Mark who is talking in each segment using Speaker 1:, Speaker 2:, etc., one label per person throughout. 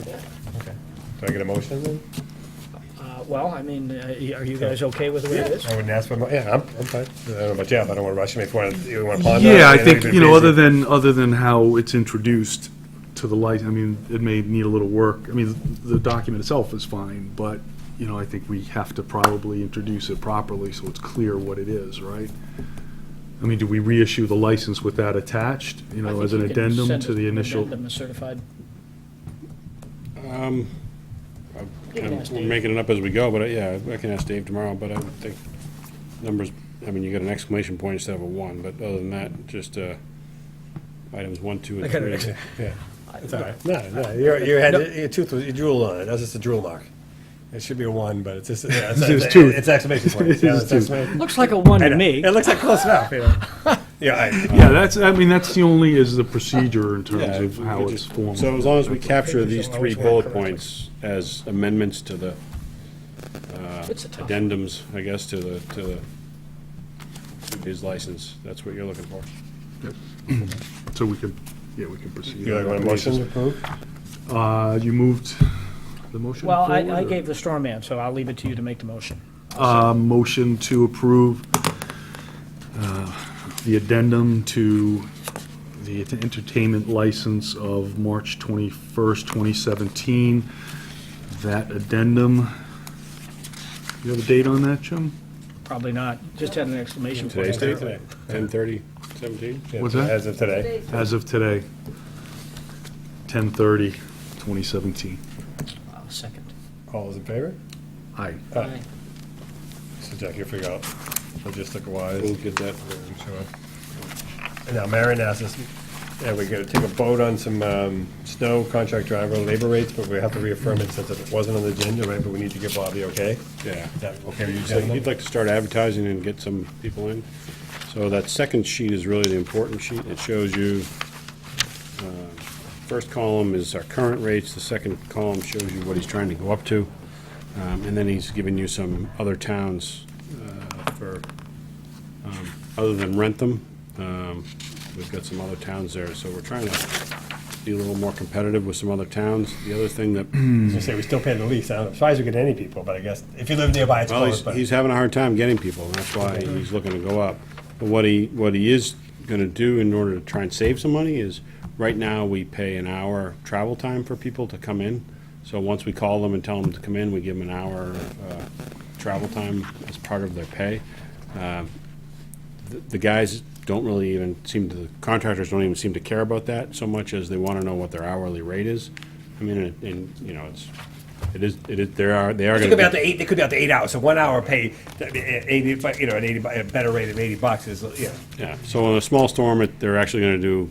Speaker 1: Okay. Do I get a motion then?
Speaker 2: Uh, Well, I mean, uh, are you guys okay with the way it is?
Speaker 1: I wouldn't ask for, mo- yeah, I'm, I'm fine. I don't know about you, but I don't want to rush him if you want to, you want to ponder.
Speaker 3: Yeah, I think, you know, other than, other than how it's introduced to the light, I mean, it may need a little work. I mean, the document itself is fine, but, you know, I think we have to probably introduce it properly so it's clear what it is, right? I mean, do we reissue the license with that attached, you
Speaker 2: I
Speaker 3: know,
Speaker 2: think
Speaker 3: as an
Speaker 2: you can
Speaker 3: addendum
Speaker 2: send
Speaker 3: to the
Speaker 2: an
Speaker 3: initial?
Speaker 2: addendum, a certified,
Speaker 4: Um, I'm
Speaker 2: can
Speaker 4: kind
Speaker 2: ask
Speaker 4: of- we're
Speaker 2: Dave.
Speaker 4: making it up as we go, but uh, yeah, I can ask Dave tomorrow, but I would think numbers, I mean, you got an exclamation point instead of a one, but other than that, just, uh, items one, two,
Speaker 1: I
Speaker 4: and
Speaker 1: got an
Speaker 4: three.
Speaker 1: ex- Yeah. It's all right. No, no, your, your head, your tooth, was- you drool on it. That's just a drool mark. It should be a one, but it's just, yeah, it's,
Speaker 3: It's
Speaker 1: it's,
Speaker 3: tooth.
Speaker 1: it's exclamation point.
Speaker 3: It's
Speaker 1: Yeah,
Speaker 3: his
Speaker 1: it's
Speaker 3: tooth.
Speaker 1: exclamation.
Speaker 2: looks like a one
Speaker 1: I
Speaker 2: to
Speaker 1: know.
Speaker 2: me.
Speaker 1: It looks like close enough, you know. Yeah, I,
Speaker 3: Yeah, that's, I mean, that's the only, is the procedure in terms
Speaker 4: Yeah,
Speaker 3: of
Speaker 4: we
Speaker 3: how
Speaker 4: could
Speaker 3: it's
Speaker 4: just-
Speaker 3: formed.
Speaker 4: So as long as we capture
Speaker 1: Pictures
Speaker 4: these
Speaker 1: don't
Speaker 4: three
Speaker 1: always work
Speaker 4: bullet
Speaker 1: correctly.
Speaker 4: points as amendments to the
Speaker 2: It's a tough one.
Speaker 4: addendums, I guess, to the, to the, to his license, that's what you're looking for.
Speaker 3: So we can, yeah, we can proceed.
Speaker 1: you like want a motion to approve?
Speaker 3: Uh, you moved the motion
Speaker 2: Well, I,
Speaker 3: forward,
Speaker 2: I
Speaker 3: or-
Speaker 2: gave the straw man, so I'll leave it to you to make the motion.
Speaker 3: Uh, motion to approve uh, the addendum to the entertainment license of March 21st, 2017. That addendum, you have a date on that, Jim?
Speaker 2: Probably not, just had an exclamation point.
Speaker 4: Today's date,
Speaker 1: Today.
Speaker 4: ten thirty, seventeen?
Speaker 1: Yeah,
Speaker 3: What's that?
Speaker 1: As of today.
Speaker 3: As of today, 10:30, 2017.
Speaker 2: I'll Second.
Speaker 1: All those in favor?
Speaker 3: Aye.
Speaker 1: Aye. So Jack, you figure out logistic wise.
Speaker 4: We'll get that.
Speaker 1: And Now, Marion asked us, yeah, we're gonna take a vote on some, um, snow contract driver labor rates, but we have to reaffirm it since it wasn't on the agenda, right, but we need to give Bobby okay?
Speaker 4: Yeah.
Speaker 1: Is that okay with you,
Speaker 4: So
Speaker 1: gentlemen?
Speaker 4: you'd like to start advertising and get some people in. So that second sheet is really the important sheet. It shows you, um, first column is our current rates, the second column shows you what he's trying to go up to. Um, And then he's given you some other towns uh, for, um, other than Rentham. Um, We've got some other towns there, so we're trying to be a little more competitive with some other towns. The other thing that
Speaker 1: I was gonna say, we still pay the lease, I don't, I'm surprised we get any people, but I guess, if you live nearby, it's
Speaker 4: Well,
Speaker 1: close,
Speaker 4: he's,
Speaker 1: but.
Speaker 4: he's having a hard time getting people, and that's why he's looking to go up. But what he, what he is gonna do in order to try and save some money is, right now, we pay an hour travel time for people to come in. So once we call them and tell them to come in, we give them an hour, uh, travel time as part of their pay. Um, the- The guys don't really even seem to, the contractors don't even seem to care about that so much as they wanna know what their hourly rate is. I mean, and- and, you know, it's, it is, it is, there are, they are
Speaker 1: It
Speaker 4: gonna
Speaker 1: could be
Speaker 4: be-
Speaker 1: out to eight, it could be out to eight hours, so one hour pay, I mean, eh, eighty, bu- you know, an eighty, bu- a better rate of eighty bucks is, you know,
Speaker 4: Yeah, so in a small storm, it- they're actually going to do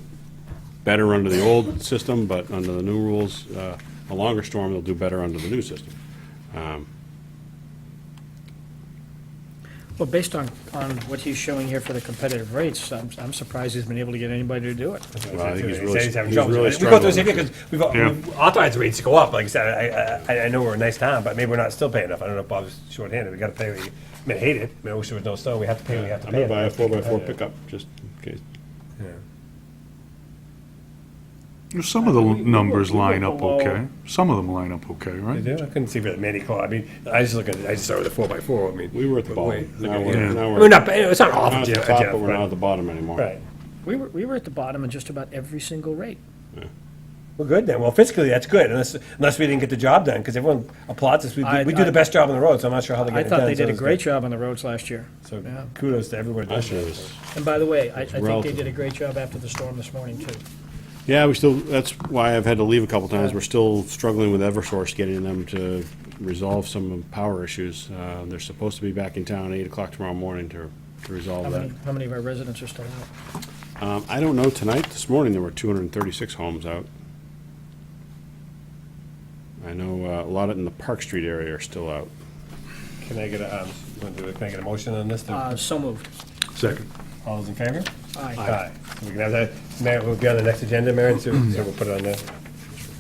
Speaker 4: better under the old system, but under the new rules, uh, a longer storm, they'll do better under the new system.
Speaker 2: Well, based on, on what he's showing here for the competitive rates, I'm, I'm surprised he's been able to get anybody to do it.
Speaker 4: Well, I think he's really-
Speaker 1: He's having
Speaker 4: he's
Speaker 1: trouble.
Speaker 4: really
Speaker 1: We go through the same thing,
Speaker 4: struggling.
Speaker 1: because we've, got- we've authorized rates to go up, like I said, I, I, I know we're a nice town, but maybe we're not still paying enough, I don't know if Bob's shorthanded, we gotta pay, what we- I mean, I hate it, I mean, I wish there was no snow, we have to pay, what we have to
Speaker 4: I'm
Speaker 1: pay. Uh,
Speaker 4: going to buy a four-by-four
Speaker 1: Yeah.
Speaker 4: pickup, just in case.
Speaker 3: Some of the
Speaker 2: We- we were-
Speaker 3: numbers
Speaker 2: we were
Speaker 3: line up
Speaker 2: below-
Speaker 3: okay. Some of them line up okay, right?
Speaker 1: They do? I couldn't see really many call, I mean, I just look at, I just started with a four by four, I mean.
Speaker 4: We were at the
Speaker 1: but wait,
Speaker 4: bottom.
Speaker 1: look
Speaker 4: Now
Speaker 1: at-
Speaker 4: we're-
Speaker 1: yeah.
Speaker 4: now
Speaker 1: I
Speaker 4: we're-
Speaker 1: mean, not, ba- it's not
Speaker 4: We're
Speaker 1: awful,
Speaker 4: not at
Speaker 1: Jeff,
Speaker 4: the top,
Speaker 1: Jeff,
Speaker 4: but we're not at
Speaker 1: but,
Speaker 4: the bottom anymore.
Speaker 1: right.
Speaker 2: We were, we were at the bottom in just about every single rate.
Speaker 1: We're good then, well, fiscally, that's good, unless, unless we didn't get the job done, because everyone applauds us, we,
Speaker 2: I-
Speaker 1: do- we do
Speaker 2: I-
Speaker 1: the best job on the road, so I'm not sure how they get
Speaker 2: I
Speaker 1: it done.
Speaker 2: thought they
Speaker 1: so
Speaker 2: did a
Speaker 1: it's
Speaker 2: great
Speaker 1: good.
Speaker 2: job on the roads last year. Yeah.
Speaker 1: So kudos to everyone. that
Speaker 4: Last year
Speaker 1: did it.
Speaker 4: was-
Speaker 2: And by the way, I, I think they
Speaker 4: relative.
Speaker 2: did a great job after the storm this morning, too.
Speaker 4: Yeah, we still, that's why I've had to leave a couple times. We're still struggling with Eversource, getting them to resolve some of the power issues. Uh, They're supposed to be back in town eight o'clock tomorrow morning to to
Speaker 2: How
Speaker 4: resolve that.
Speaker 2: many, how many of our residents are still out?
Speaker 4: Um, I don't know, tonight, this morning, there were two hundred and thirty-six homes out. I know uh, a lot in the Park Street area are still out.
Speaker 1: Can I get a, um, wanna do it? can I get a motion on this?
Speaker 2: Uh, so moved.
Speaker 3: Second.
Speaker 1: All those in favor?
Speaker 2: Aye.
Speaker 1: Aye. So we can have that, Mary, we'll be on the next agenda, Mary, so so we'll put it on there.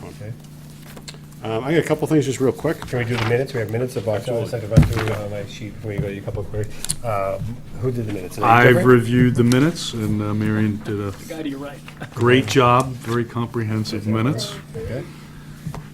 Speaker 1: Okay.
Speaker 4: Um, I got a couple things just real quick.
Speaker 1: Can we do the minutes? We have minutes of October second, run through on my sheet before you go, you couple of queries. Uh, Who did the minutes? Is it
Speaker 3: I've
Speaker 1: different?
Speaker 3: reviewed the minutes, and uh, Marion did a
Speaker 2: Guy to your right.
Speaker 3: great job, very comprehensive minutes.
Speaker 1: Okay.